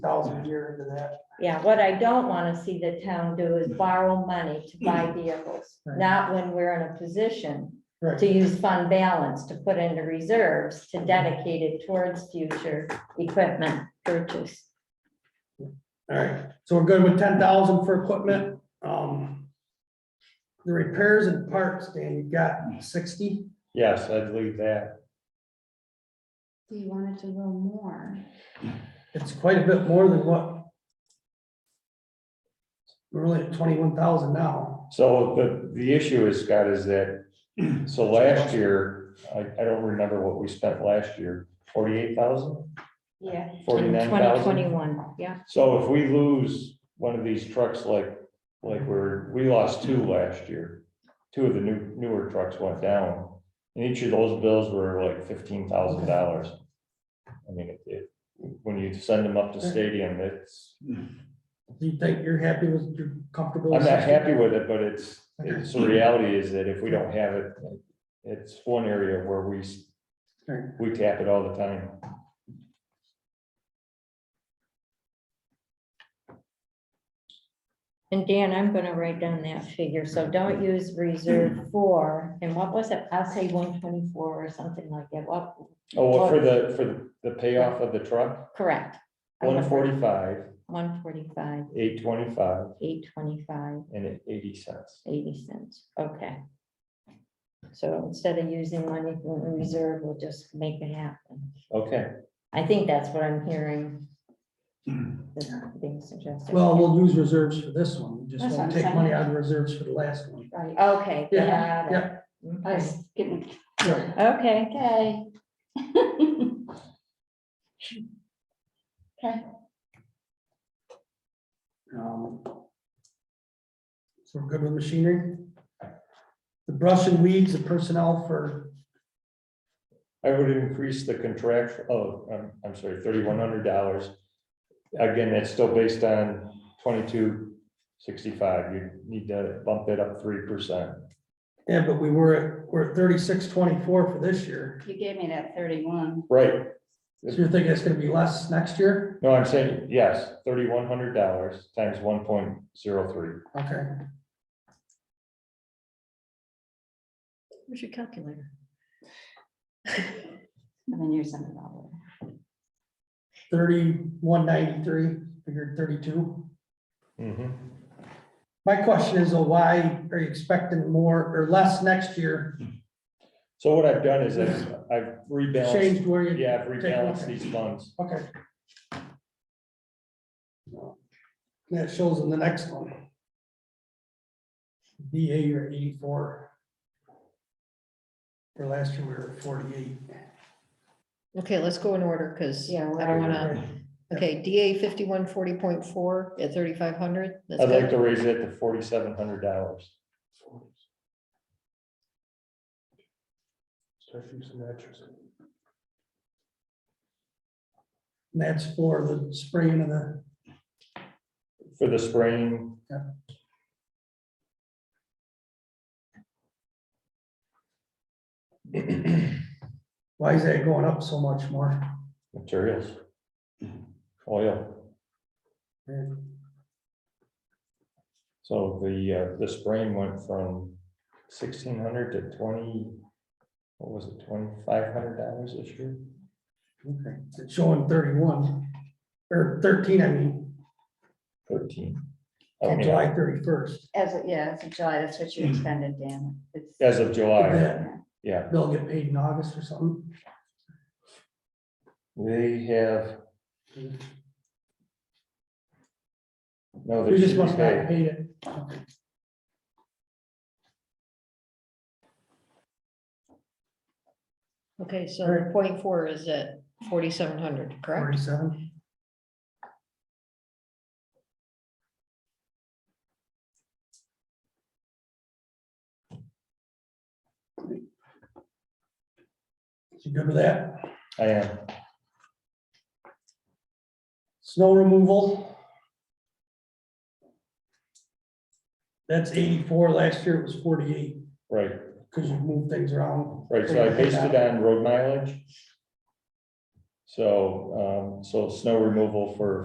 thousand a year into that. Yeah, what I don't want to see the town do is borrow money to buy vehicles, Right. not when we're in a position Right, to use fund balance to put into reserves to dedicate it towards future equipment purchase. all right, so we're good with ten thousand for equipment, um. The repairs and parts, Dan, you got sixty? Yes, I'd leave that. Do you want it to go more? It's quite a bit more than what? We're only at twenty-one thousand now. So the, the issue is, Scott, is that, so last year, I, I don't remember what we spent last year, forty-eight thousand? Yeah. In Forty-nine twenty thousand? twenty-one, yeah. So if we lose one of these trucks like, like we're, we lost two last year. Two of the new, newer trucks went down, and each of those bills were like fifteen thousand dollars. I mean, it, it, when you send them Mm. up to stadium, it's, Do you think you're happy with, you're comfortable? I'm with not 60? happy with it, but it's, it's, the reality is that if we don't have it, it's one area where we, s- Sure. we tap it all the time. And Dan, I'm gonna write down that figure, so don't use reserve four, and what was it? I'll say one twenty-four or something like that, what, Oh, well, for the, for the- the payoff of the truck, correct? one forty-five, One forty-five, eight twenty-five, eight twenty-five, and eighty cents. eighty cents, okay. So instead of using money from the reserve, we'll just make it happen. Okay, I think that's what I'm hearing. that's Being suggested. Well, we'll use reserves for this one, we just That's won't what I'm take money out of reserves for the last one. Right. Okay. Yeah, got it. yeah. I Okay. was getting, Right. Okay, okay. Okay, Um, So we're good with machinery? The brush and weeds, the personnel for, I would increase the contract, oh, I'm, I'm sorry, thirty-one hundred dollars. Again, that's still based on twenty-two sixty-five, you need to bump it up three percent. yeah, but we were, at- we're at thirty-six twenty-four for this year. you gave me that thirty-one. Right, So you're thinking it's gonna be less next year? no, I'm saying, yes, thirty-one hundred dollars times one point zero three. Okay, where's your calculator? And then you're sending it all thirty-one ninety-three, figured thirty-two. Mm-hmm. My question is, uh, why are you expecting more or less next year? So what I've done is I've, I've rebalanced, Changed where you? yeah, I've rebalanced these funds. Okay. That shows in the next one. DA you're at eighty-four. For last year, we were at forty-eight. Okay, let's go in order, because I Yeah, we're- don't wanna, okay, DA fifty-one forty point four at thirty-five hundred. I'd like to raise it to forty-seven hundred dollars. And that's for the spring of the, For the spraying, why is that going up so much more? materials. Oil, so the, uh, the spraying went from sixteen hundred to twenty, what was it, twenty-five hundred dollars this year? Okay, it's showing thirty-one, or thirteen, I mean, Thirteen. I on mean, July thirty-first. As, of- yeah, as of July, that's what you expended, Dan. It's- As of July, They'll yeah, get paid in August or something. they have. No, they We just should be must paid. not pay it. Okay, so point four is at forty-seven hundred, correct? Forty-seven. You good with that? I am, Snow removal? That's eighty-four, last year it was forty-eight, right, because you moved things around. right, so I based it on road mileage. So, um, so snow removal for